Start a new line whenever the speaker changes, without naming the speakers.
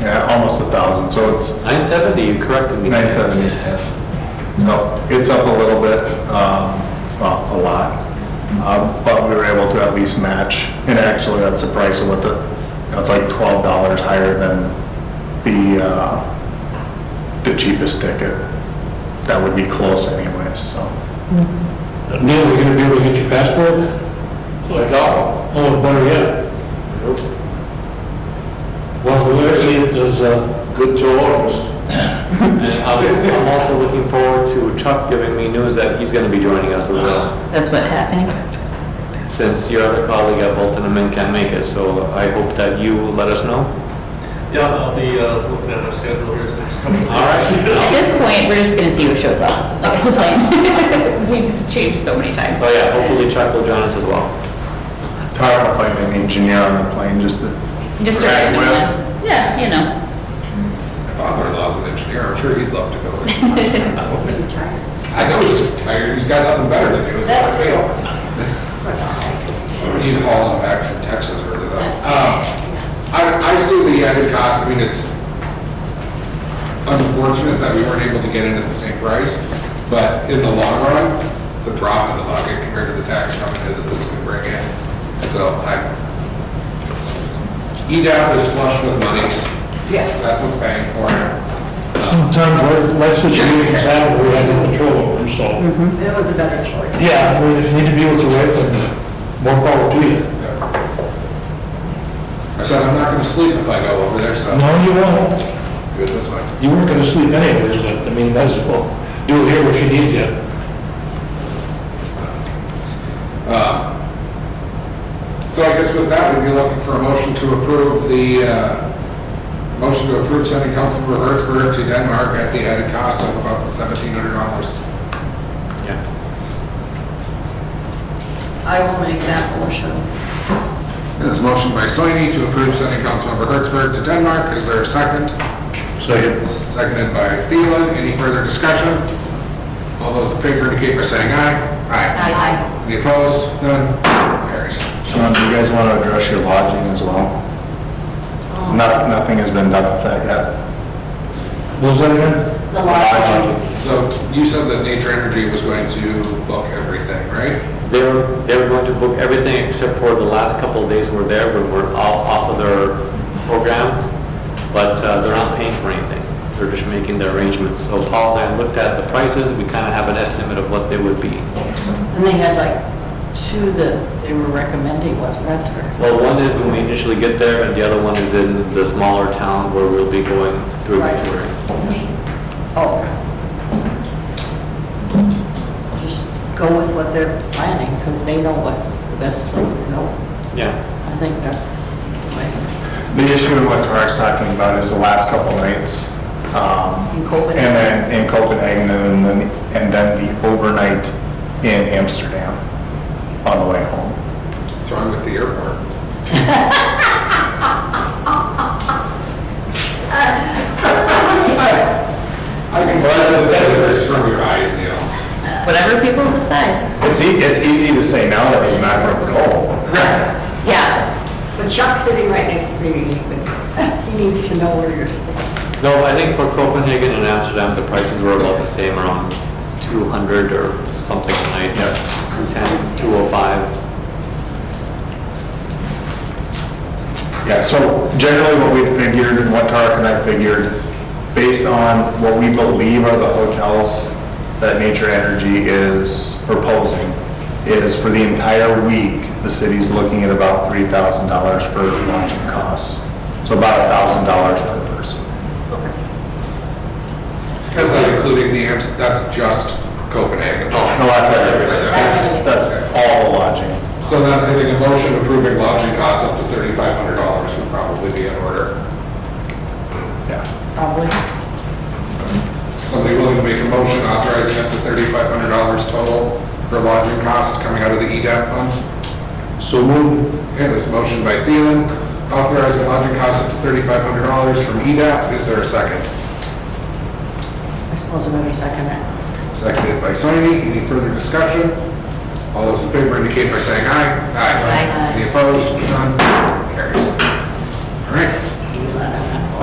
yeah, almost a thousand, so it's
970, you corrected me.
970, yes. So it's up a little bit, um, well, a lot, Um, but we were able to at least match, and actually, that's the price of what the, you know, it's like $12 higher than the, uh, the cheapest ticket. That would be close anyways, so.
Neil, we gonna be able to get your passport? Oh, better yet. Well, we actually, there's a... Good to August.
And I'm I'm also looking forward to Chuck giving me news that he's going to be joining us as well,
That's what happened?
since your other colleague at Bolton and Min can't make it, so I hope that you will let us know.
Yeah, I'll be uh, looking at my schedule here the next couple of days.
All right.
At this point, we're just gonna see who shows up. That's the plan. We've just changed so many times.
So Oh, yeah, hopefully Chuck will join us as well.
Talking about finding an engineer on the plane, just to.
Just a
Right,
random
well.
one. Yeah, you know.
My father-in-law's an engineer, I'm sure he'd love to go there. I know he's retired, he's got nothing better to do, it's not a deal. He'd haul him back from Texas early though. Um, I, I see the added cost, I mean, it's unfortunate that we weren't able to get in at the same price, but in the long run, it's a drop in the bucket compared to the tax revenue that this could bring in. So I, EDAP is flush with monies. Yeah. That's what's paying for it.
Sometimes life- life situations happen we have no control over, so...
Mm-hmm. It was a better choice.
Yeah, we just need to be able to wait for them. More power to you.
I said, I'm not gonna sleep if I go over there, so
No, you won't.
do it this way.
You weren't gonna sleep anyways, but, I mean, that's, well, you'll hear what she needs you.
Um, So I guess with that, we'd be looking for a motion to approve the, uh, motion to approve sending Councilmember Hertzberg to Denmark at the added cost of about seventeen hundred dollars.
Yeah.
I will make that motion.
This motion by Soini to approve sending Councilmember Hertzberg to Denmark. Is there a second?
Second.
Seconded by Thielen. Any further discussion? All those in favor indicate by saying aye. Aye.
Aye.
Any opposed? None? Carries.
Sean, do you guys want to address your lodging as well? Noth- Nothing has been done with that yet.
What was that again?
The lodging.
So you said that Nature Energy was going to book everything, right?
They were, they were going to book everything except for the last couple of days we're there, but we're all off of their program, but uh, they're not paying for anything. They're just making the arrangements. So Paul and I looked at the prices, we kind of have an estimate of what they would be.
And they had like two that they were recommending, wasn't that
Well, one is when we initially get there, and the other one is in the smaller town where we'll be going through
Right.
touring.
Oh. Just go with what they're planning, because they know what's the best place to go.
Yeah,
I think that's the way.
The issue in what Tarek's talking about is the last couple nights. um,
In Copenhagen.
And then in Copenhagen, and then, and then the overnight in Amsterdam on the way home.
What's wrong with the airport? I can watch the visitors from your eyes, Neil.
Whatever people decide.
It's, ea- it's easy to say now that he's not going to go.
Yeah.
But Chuck's sitting right next to you, he needs to know where you're sitting.
no, I think for Copenhagen and Amsterdam, the prices were about the same, around 200 or something a night.
Yeah.
210, 205.
Yeah, so generally what we figured and what Tarek and I figured, based on what we believe are the hotels that Nature Energy is proposing, is for the entire week, the city's looking at about three thousand dollars for lodging costs. So about a thousand dollars per person.
Is that including the, Amst- that's just Copenhagen?
Oh, No, that's everything. That's, that's all the lodging.
So then I think a motion approving lodging costs up to thirty-five hundred dollars would probably be in order.
Yeah.
Probably.
Somebody willing to make a motion authorizing up to thirty-five hundred dollars total for lodging costs coming out of the E EDAP fund?
So move.
Okay, there's a motion by Thielen, authorizing lodging costs up to thirty-five hundred dollars from EDAP. Is there a second?
I suppose I'm gonna second that.
Seconded by Soini. Any further discussion? All those in favor indicate by saying aye.
Aye.
Any opposed? None? Carries. All right.